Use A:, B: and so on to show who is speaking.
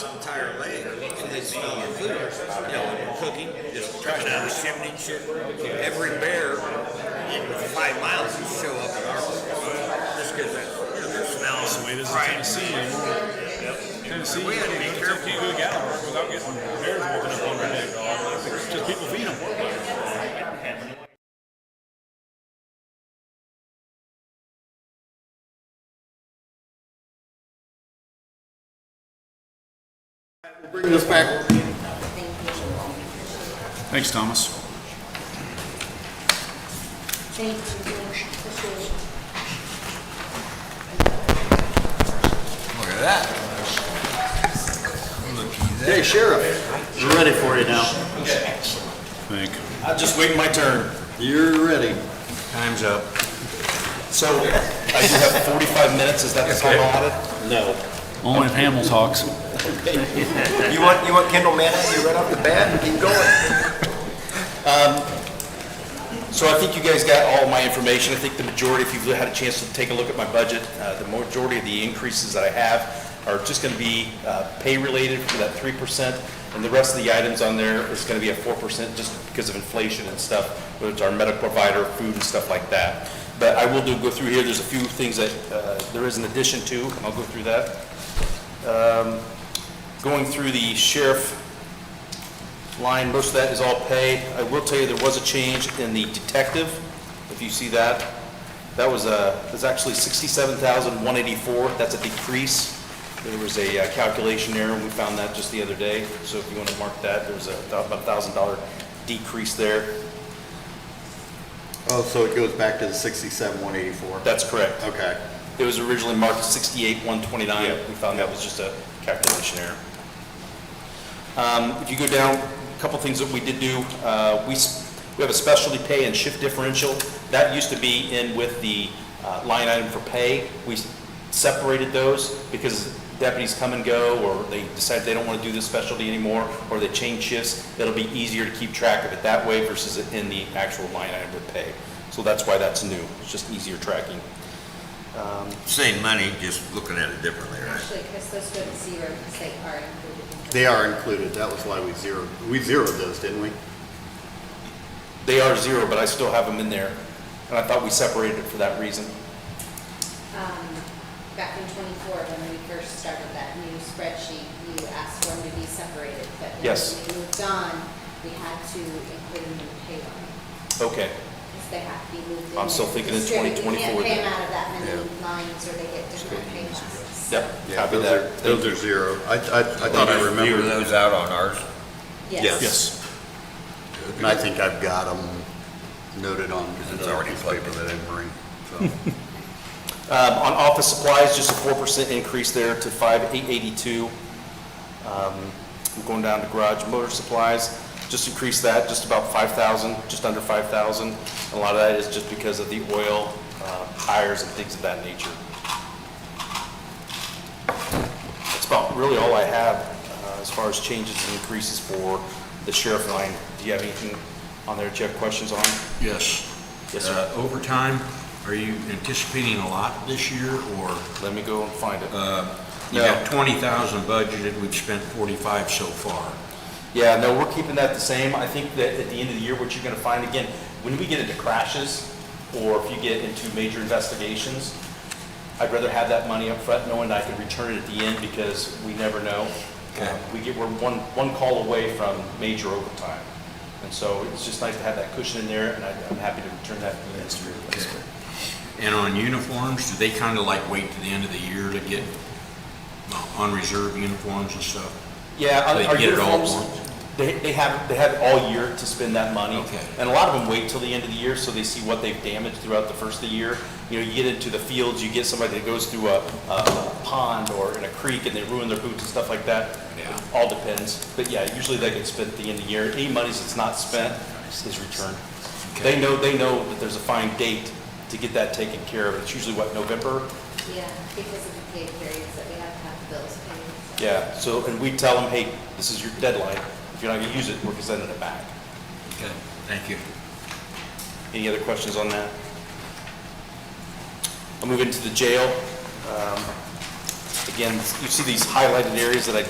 A: entire land, and they smell your food, you know, and cooking, just coming out of the chimney and shit. Every bear in five miles would show up in our place, just because that's, you know, their smell.
B: That's the way it is in
A: Right.
B: Tennessee anymore. Tennessee,
A: We
B: you
A: had to be
B: can't
A: careful.
B: go to Gallup without getting bears walking up on your neck. dog. Just people feed them.
C: Bring this back.
B: Thanks, Thomas.
D: Thank you, George. This is
A: Look at that.
C: Hey, Sheriff. We're ready for you now.
B: Thank you.
E: I'm just waiting my turn.
C: You're ready.
E: Time's up. So, I do have 45 minutes, is that the time allotted?
C: No.
B: Only if Hamill talks.
E: You want, you want Kendall Manning, you right off the bat, keep going. So I think you guys got all my information, I think the majority, if you've had a chance to take a look at my budget, uh, the majority of the increases that I have are just gonna be uh, pay-related for that 3%, and the rest of the items on there is gonna be a 4% just because of inflation and stuff, whether it's our medical provider, food and stuff like that. But I will do, go through here, there's a few things that uh, there is an addition to, and I'll go through that Um, going through the sheriff line, most of that is all pay. I will tell you, there was a change in the detective, if you see that. That was a, that's actually sixty-seven thousand, one eighty-four, that's a decrease. There was a uh, calculation error, and we found that just the other day, so if you want to mark that, there's a thou- about a thousand dollar decrease there.
C: Oh, so it goes back to the sixty-seven, one eighty-four.
E: That's correct.
C: Okay.
E: It was originally marked sixty-eight, one twenty-nine.
C: Yep.
E: We found that was just a calculation error. Um, if you go down, a couple things that we did do, uh, we, s- we have a specialty pay and shift differential. That used to be in with the, uh, line item for pay. We s- separated those because deputies come and go, or they decide they don't want to do this specialty anymore, or they change shifts. It'll be easier to keep track of it that way versus in the actual line item with pay. So that's why that's new. It's just easier tracking.
A: Same money, just looking at it differently, right?
F: Actually, because those go to zero, because they are included.
C: They are included. That was why we zeroed, we zeroed those, didn't we?
E: They are zero, but I still have them in there, and I thought we separated it for that reason.
F: Back in twenty-four, when we first started that new spreadsheet, you asked for them to be separated, but then
E: Yes.
F: when we moved on, we had to include them in the pay line.
E: Okay,
F: Because they have to be moved in.
E: I'm still thinking in
F: It's true,
E: 2024
F: You can't pay
E: then.
F: them out of that many lines, or they get different pay lines.
E: yep,
C: Yeah,
E: copy
C: those are-
E: that.
C: Those are zero. I, I, I thought I
A: Figure
C: remembered.
A: those out on ours.
C: Yes.
E: Yes,
C: And I think I've got them noted on. Because
A: it's already
C: paper that I didn't bring, so.
E: um, on office supplies, just a four percent increase there to five eight eighty-two. I'm going down to garage motor supplies, just increase that, just about five thousand, just under five thousand. A lot of that is just because of the oil, uh, tires and things of that nature. That's about really all I have uh, as far as changes and increases for the sheriff line. Do you have anything on there that you have questions on?
G: Yes.
E: Yes, sir.
G: Uh, Overtime, are you anticipating a lot this year, or
E: Let me go and find it.
G: you
E: No.
G: got 20,000 budgeted, we've spent 45 so far?
E: Yeah, no, we're keeping that the same. I think that at the end of the year, what you're gonna find, again, when we get into crashes, or if you get into major investigations, I'd rather have that money up front, knowing that I can return it at the end, because we never know.
G: Okay.
E: Um, We get, we're one, one call away from major overtime. And so it's just nice to have that cushion in there, and I- I'm happy to return that at the end of the year.
G: And on uniforms, do they kind of like wait to the end of the year to get uh, on reserve uniforms and stuff?
E: Yeah, our-
G: They
E: our
G: get it all at
E: uniforms,
G: once?
E: they, they have, they have all year to spend that money.
G: Okay.
E: And a lot of them wait till the end of the year, so they see what they've damaged throughout the first of the year. You know, you get into the fields, you get somebody that goes through a, a pond or in a creek and they ruin their boots and stuff like that.
G: Yeah.
E: It All depends, but yeah, usually they get spent at the end of the year. Any monies that's not spent is returned.
G: Okay.
E: They know, they know that there's a fine date to get that taken care of. It's usually what, November?
F: Yeah, because of the pay periods that we have to have the bills paid. so-
E: Yeah, so, and we tell them, hey, this is your deadline. If you're not gonna use it, we're sending it back.
G: Okay, thank you.
E: Any other questions on that? I'll move into the jail. Um, Again, you see these highlighted areas that I